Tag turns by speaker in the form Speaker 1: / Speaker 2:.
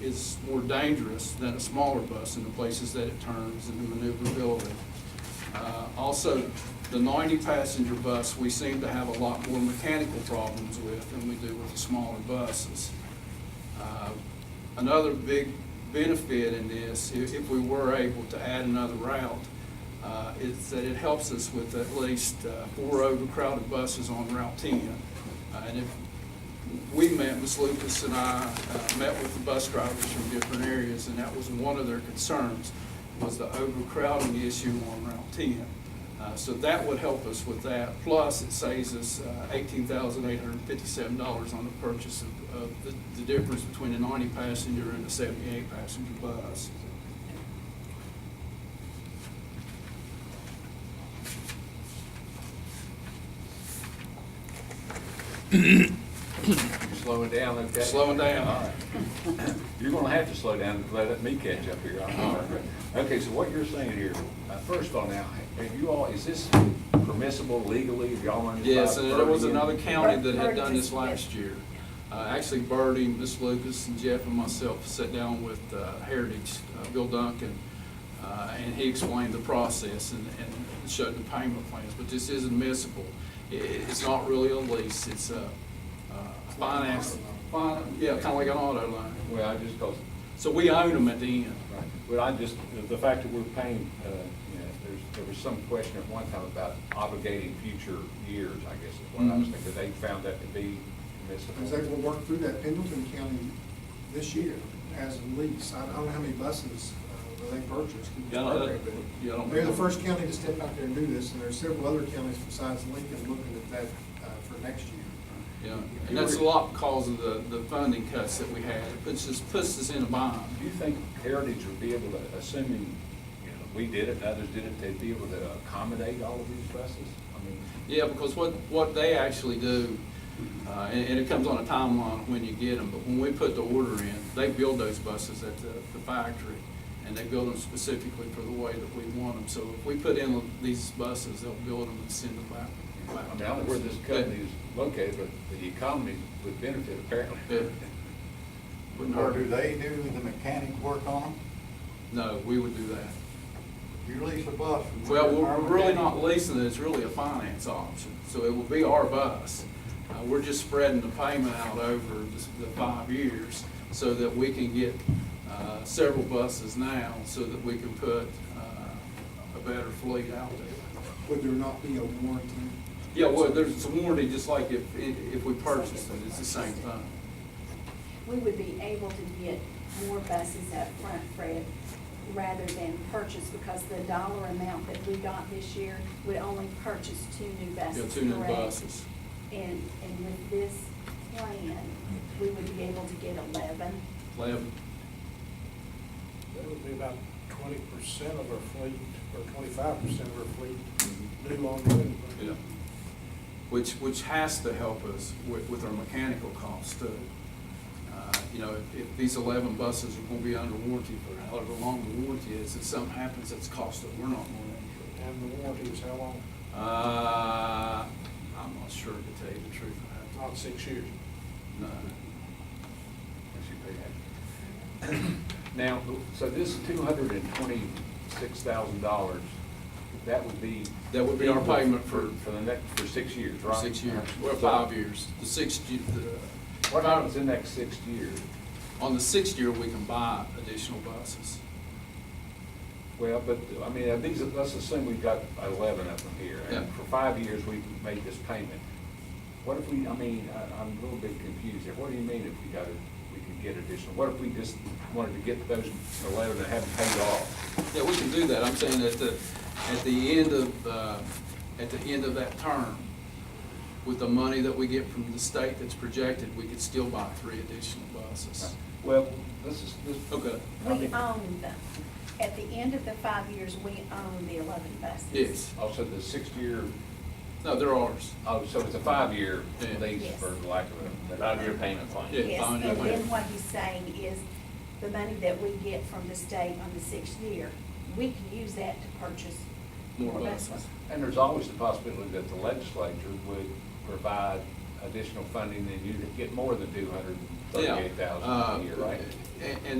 Speaker 1: is more dangerous than a smaller bus in the places that it turns and the maneuverability. Uh, Also, the 90-passenger bus, we seem to have a lot more mechanical problems with than we do with the smaller buses. Uh, Another big benefit in this, if, if we were able to add another route, uh, is that it helps us with at least uh, four overcrowded buses on Route 10. Uh, And if, we met, Ms. Lucas and I, uh, met with the bus drivers from different areas, and that was one of their concerns, was the overcrowding issue on Route 10. Uh, So that would help us with that, plus it saves us uh, $18,857 on the purchase of, of the, the difference between a 90-passenger and a 78-passenger bus.
Speaker 2: You're slowing down, okay?
Speaker 1: Slowing down.
Speaker 2: All right. You're gonna have to slow down to let me catch up here. I'm sorry. Okay, so what you're saying here, uh, first of all now, have you all, is this permissible legally? Have y'all understood?
Speaker 1: Yes, and there was another county that had done this last year. Uh, Actually, Birdie, Miss Lucas, and Jeff and myself sat down with uh, Heritage, uh, Bill Duncan, uh, and he explained the process and and showed the payment plans, but this is admissible. I- i- It's not really a lease, it's a uh, finance, fin- yeah, kind of like an auto loan.
Speaker 2: Well, I just, cause,
Speaker 1: So we own them at the end.
Speaker 2: right, well, I just, the- the fact that we're paying, uh, you know, there's, there was some question at one time about obligating future years, I guess, is what I was
Speaker 1: Mhm.
Speaker 2: thinking. They found that to be permissible.
Speaker 3: Because they will work through that Pendleton County this year as a lease. I I don't know how many buses uh, that they purchased.
Speaker 1: Yeah, I don't know. Yeah, I don't
Speaker 3: They're the
Speaker 1: know.
Speaker 3: first county to step out there and do this, and there are several other counties besides Lincoln looking at that uh, for next year.
Speaker 1: Yeah, and that's a lot because of the, the funding cuts that we had. It puts us, puts us in a bind.
Speaker 2: Do you think Heritage would be able to, assuming, you know, we did it, and others did it, they'd be able to accommodate all of these buses? I mean,
Speaker 1: Yeah, because what, what they actually do, uh, and, and it comes on a timeline when you get them, but when we put the order in, they build those buses at the, the factory, and they build them specifically for the way that we want them. So if we put in these buses, they'll build them and send them back.
Speaker 2: I mean, I don't know where this company is located, but the economy would benefit
Speaker 1: Yeah.
Speaker 2: apparently.
Speaker 1: Wouldn't
Speaker 4: Or
Speaker 1: hurt.
Speaker 4: do they do the mechanic work on
Speaker 1: No, we would do that.
Speaker 4: them? You lease a bus. from
Speaker 1: Well,
Speaker 4: one of
Speaker 1: we're
Speaker 4: our
Speaker 1: we're really
Speaker 4: mechanics.
Speaker 1: not leasing it, it's really a finance option, so it will be our bus. Uh, We're just spreading the payment out over the- the five years so that we can get uh, several buses now so that we can put uh, a better fleet out there.
Speaker 3: Would there not be a warranty?
Speaker 1: Yeah, well, there's a warranty, just like if, if we purchase it, it's the same thing.
Speaker 5: We would be able to get more buses up front, Fred, rather than purchase, because the dollar amount that we got this year would only purchase two new buses.
Speaker 1: Yeah, two new
Speaker 5: correct?
Speaker 1: buses.
Speaker 5: And, and with this plan, we would be able to get eleven.
Speaker 1: Eleven.
Speaker 6: That would be about twenty percent of our fleet, or twenty-five percent of our fleet, new on road.
Speaker 1: Yeah. Which, which has to help us with, with our mechanical costs too. Uh, You know, if- if these eleven buses are gonna be under warranty for however long the warranty is, if something happens, it's cost that we're not gonna
Speaker 6: And the warranty is how long?
Speaker 1: incur. Uh, I'm not sure to tell you the truth. I have
Speaker 6: Not
Speaker 1: to-
Speaker 6: six years.
Speaker 1: No.
Speaker 2: Now, so this two hundred and twenty-six thousand dollars, that would be.
Speaker 1: That would be our payment for-
Speaker 2: For the next, for six years,
Speaker 1: For
Speaker 2: right?
Speaker 1: Six years, well, five years. The sixth, ye- the.
Speaker 2: What happens in the next six years?
Speaker 1: On the sixth year, we can buy additional buses.
Speaker 2: Well, but, I mean, uh, these, are- let's assume we've got eleven of them here, and
Speaker 1: Yeah.
Speaker 2: for five years, we've made this payment. What if we, I mean, I, I'm a little bit confused here, what do you mean if we got, it- we could get additional? What if we just wanted to get those eleven that haven't paid off?
Speaker 1: Yeah, we can do that. I'm saying at the, at the end of, uh, at the end of that term, with the money that we get from the state that's projected, we could still buy three additional buses.
Speaker 2: Well, this is, this.
Speaker 1: Okay.
Speaker 2: I
Speaker 5: We um,
Speaker 2: mean,
Speaker 5: own them. At the end of the five years, we own the eleven buses.
Speaker 1: Yes.
Speaker 2: Also, oh, the six-year,
Speaker 1: No, they're ours.
Speaker 2: oh, so it's a five-year
Speaker 1: Yeah.
Speaker 2: lease
Speaker 5: Yes.
Speaker 2: for lack of a.
Speaker 7: Five-year payment plan.
Speaker 1: Yeah,
Speaker 5: Yes,
Speaker 1: fine,
Speaker 5: and
Speaker 1: okay.
Speaker 5: then what he's saying is, the money that we get from the state on the sixth year, we can use that to purchase
Speaker 1: More
Speaker 5: more buses.
Speaker 1: buses.
Speaker 2: And there's always the possibility that the legislature would provide additional funding, and you'd get more than two hundred and
Speaker 1: Yeah.
Speaker 2: thirty-eight thousand
Speaker 1: Uh,
Speaker 2: a year, right?
Speaker 1: And, and